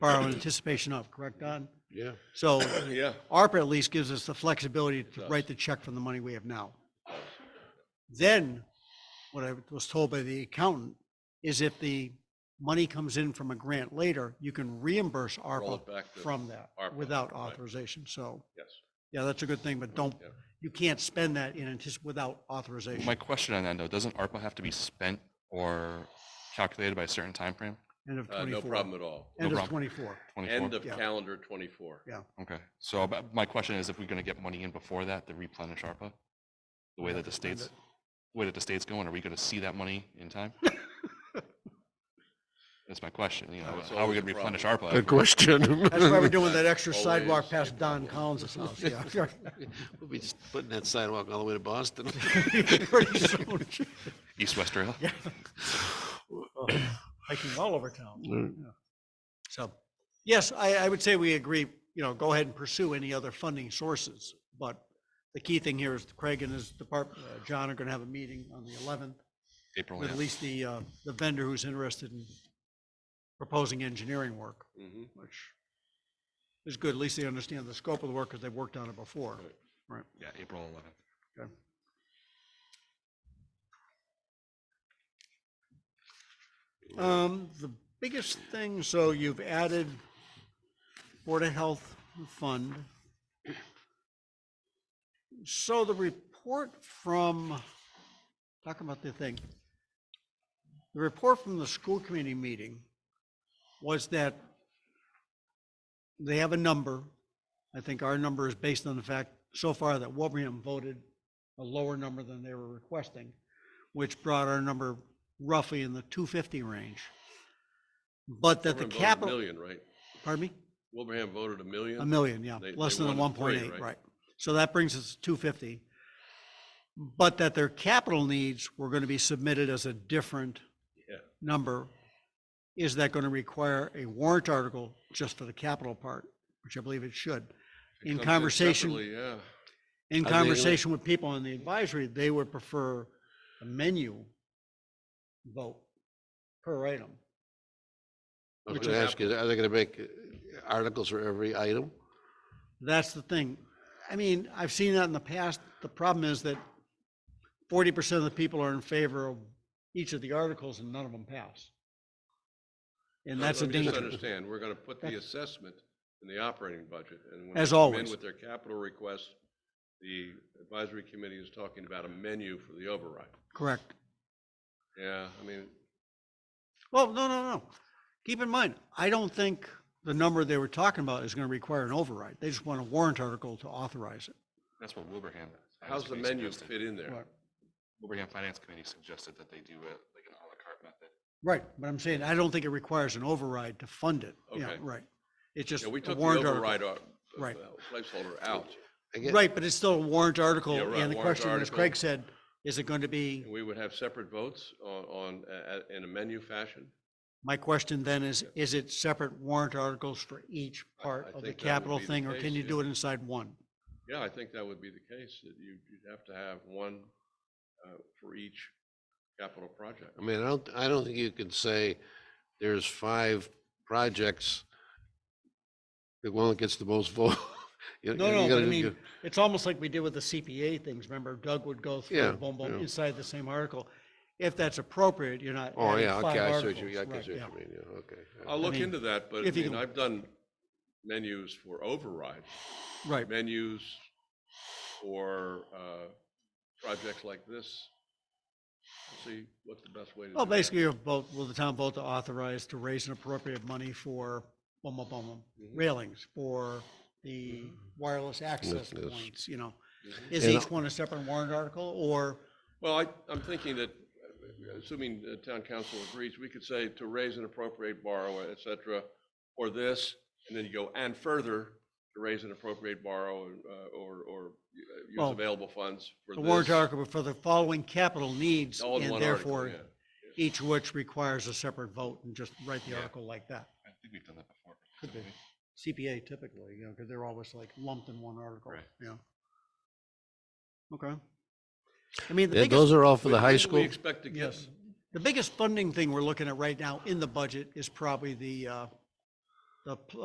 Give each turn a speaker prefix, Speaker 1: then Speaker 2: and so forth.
Speaker 1: borrow in anticipation of, correct, Don?
Speaker 2: Yeah,
Speaker 1: So
Speaker 2: yeah.
Speaker 1: ARPA at least gives us the flexibility to
Speaker 2: does.
Speaker 1: write the check from the money we have now. Then, what I was told by the accountant is if the money comes in from a grant later, you can reimburse
Speaker 2: Roll
Speaker 1: ARPA
Speaker 2: it back to,
Speaker 1: from that
Speaker 2: ARPA,
Speaker 1: without
Speaker 2: right.
Speaker 1: authorization, so,
Speaker 2: yes.
Speaker 1: yeah, that's a good thing, but don't,
Speaker 2: Yeah.
Speaker 1: you can't spend that in anticip, without authorization.
Speaker 3: My question on that though, doesn't ARPA have to be spent or calculated by a certain timeframe?
Speaker 1: End of
Speaker 2: Uh,
Speaker 1: twenty-four.
Speaker 2: no problem at all.
Speaker 1: End
Speaker 3: No
Speaker 1: of
Speaker 3: problem.
Speaker 1: twenty-four.
Speaker 2: End
Speaker 3: 24?
Speaker 2: of
Speaker 1: Yeah.
Speaker 2: calendar twenty-four.
Speaker 3: Okay, so but my question is if we're gonna get money in before that to replenish ARPA? The way that the
Speaker 1: spend
Speaker 3: state's, the way that the state's going, are we gonna see that money in time? That's my question, you know,
Speaker 2: That's
Speaker 3: how are we
Speaker 2: always a
Speaker 3: gonna replenish
Speaker 2: problem.
Speaker 3: ARPA? if we're-
Speaker 4: question.
Speaker 1: That's why we're doing that extra
Speaker 2: Always
Speaker 1: sidewalk past
Speaker 2: a
Speaker 1: Don Collins' house, yeah.
Speaker 4: We'll be just putting that sidewalk all the way to Boston.
Speaker 1: Pretty soon.
Speaker 3: East West Rail?
Speaker 1: Yeah. Hiking all over town. So, yes, I, I would say we agree, you know, go ahead and pursue any other funding sources. But the key thing here is Craig and his department, John are gonna have a meeting on the eleventh
Speaker 3: April,
Speaker 1: with
Speaker 3: Oh, yeah.
Speaker 1: at least the, uh, the vendor who's interested in proposing engineering work,
Speaker 2: Mhm.
Speaker 1: which is good. At least they understand the scope of the work because they've worked on it before.
Speaker 2: Right.
Speaker 1: Right.
Speaker 3: yeah, April eleventh.
Speaker 1: Um, the biggest thing, so you've added Board of Health Fund. So the report from, talking about the thing, the report from the school committee meeting was that they have a number. I think our number is based on the fact so far that Wilbraham voted a lower number than they were requesting, which brought our number roughly in the two fifty range. But that the
Speaker 2: Wilbraham voted a
Speaker 1: capital,
Speaker 2: Million, right?
Speaker 1: pardon me?
Speaker 2: Wilbraham voted a million?
Speaker 1: A million, yeah,
Speaker 2: They-
Speaker 1: less
Speaker 2: they
Speaker 1: than the one
Speaker 2: wanted
Speaker 1: point
Speaker 2: three,
Speaker 1: eight,
Speaker 2: right?
Speaker 1: right. So that brings us to two fifty. But that their capital needs were gonna be submitted as a different
Speaker 2: Yeah.
Speaker 1: number. Is that gonna require a warrant article just for the capital part, which I believe it should?
Speaker 2: It
Speaker 1: in
Speaker 2: comes
Speaker 1: conversation-
Speaker 2: separately, Yeah,
Speaker 1: In
Speaker 4: I think-
Speaker 1: conversation with people on the advisory, they would prefer a menu vote per item.
Speaker 4: I'm
Speaker 2: Which
Speaker 4: gonna
Speaker 2: is-
Speaker 4: ask you, are they gonna make uh, articles for every item?
Speaker 1: That's the thing. I mean, I've seen that in the past. The problem is that forty percent of the people are in favor of each of the articles and none of them pass. And
Speaker 2: Let-
Speaker 1: that's a
Speaker 2: let me just
Speaker 1: danger.
Speaker 2: Understand, we're gonna put the assessment in the operating budget, and when they
Speaker 1: As
Speaker 2: come in
Speaker 1: always.
Speaker 2: with their capital request, the advisory committee is talking about a menu for the override.
Speaker 1: Correct.
Speaker 2: Yeah, I mean,
Speaker 1: Well, no, no, no. Keep in mind, I don't think the number they were talking about is gonna require an override. They just want a warrant article to authorize it.
Speaker 3: That's what Wilbraham.
Speaker 2: how's the menu fit in there?
Speaker 1: Right.
Speaker 3: Wilbraham Finance Committee suggested that they do it like an à la carte method.
Speaker 1: Right, but I'm saying, I don't think it requires an override to fund it. Yeah,
Speaker 2: Okay.
Speaker 1: right. It's just
Speaker 2: Yeah, we
Speaker 1: a
Speaker 2: took the
Speaker 1: warrant article.
Speaker 2: override, out-
Speaker 1: Right.
Speaker 2: uh, placeholder out,
Speaker 4: I guess-
Speaker 1: Right, but it's still a warrant article,
Speaker 2: Yeah, right,
Speaker 1: and the
Speaker 2: warrant
Speaker 1: question, as
Speaker 2: article.
Speaker 1: Craig said, is it going to be,
Speaker 2: and we would have separate votes on, on, uh, in a menu fashion?
Speaker 1: my question then is, is it separate warrant articles for each
Speaker 2: I- I
Speaker 1: part of the
Speaker 2: think that would
Speaker 1: capital
Speaker 2: be the
Speaker 1: thing, or can
Speaker 2: case,
Speaker 1: you
Speaker 2: yeah.
Speaker 1: do it inside one?
Speaker 2: Yeah, I think that would be the case, that you, you'd have to have one uh, for each capital project.
Speaker 4: I mean, I don't, I don't think you could say there's five projects. The one that gets the most vote. You-
Speaker 1: No,
Speaker 4: you
Speaker 1: no, but
Speaker 4: gotta
Speaker 1: I
Speaker 4: do-
Speaker 1: mean,
Speaker 4: you-
Speaker 1: it's almost like we did with the CPA things, remember, Doug would go
Speaker 4: Yeah,
Speaker 1: through, boom, boom,
Speaker 4: yeah.
Speaker 1: inside the same article. If that's appropriate, you're not
Speaker 4: Oh,
Speaker 1: adding
Speaker 4: yeah,
Speaker 1: five
Speaker 4: okay, I see what
Speaker 1: articles.
Speaker 4: you, I can
Speaker 1: right,
Speaker 4: see
Speaker 1: yeah.
Speaker 4: what you mean, yeah, okay.
Speaker 2: I'll look
Speaker 1: mean,
Speaker 2: into that, but I
Speaker 1: if you
Speaker 2: mean,
Speaker 1: can-
Speaker 2: I've done menus for override,
Speaker 1: Right,
Speaker 2: menus for uh, projects like this. We'll See what's the best way to do
Speaker 1: well,
Speaker 2: that.
Speaker 1: basically, you vote, will the town vote to authorize to raise an appropriate money for boom, boom, boom, boom,
Speaker 2: Mhm.
Speaker 1: railings, for
Speaker 2: Mm-hmm.
Speaker 1: the wireless access
Speaker 4: yes.
Speaker 1: points, you know?
Speaker 2: Mhm.
Speaker 1: Is
Speaker 4: And
Speaker 1: each one a separate warrant article, or,
Speaker 2: Well, I, I'm thinking that, uh, assuming the town council agrees, we could say to raise and appropriate borrow, et cetera, or this, and then you go and further to raise and appropriate borrow uh, or, or uh,
Speaker 1: Well,
Speaker 2: use available funds for
Speaker 1: the
Speaker 2: this.
Speaker 1: warrant article for the following capital needs,
Speaker 2: all in
Speaker 1: and
Speaker 2: one article,
Speaker 1: therefore,
Speaker 2: yeah.
Speaker 1: each which requires a separate vote, and just write the
Speaker 3: Yeah.
Speaker 1: article like that.
Speaker 3: I think we've done that before.
Speaker 1: Could
Speaker 3: haven't
Speaker 1: be. CPA typically, you know, because they're always like lumped in one article,
Speaker 3: Right.
Speaker 1: yeah. Okay. I mean, the
Speaker 4: And
Speaker 1: biggest,
Speaker 4: those are all for
Speaker 2: When-
Speaker 4: the high
Speaker 2: when We
Speaker 4: school?
Speaker 2: expect to get
Speaker 1: yes, the biggest funding thing we're looking at right now in the budget is probably the, uh, the pl-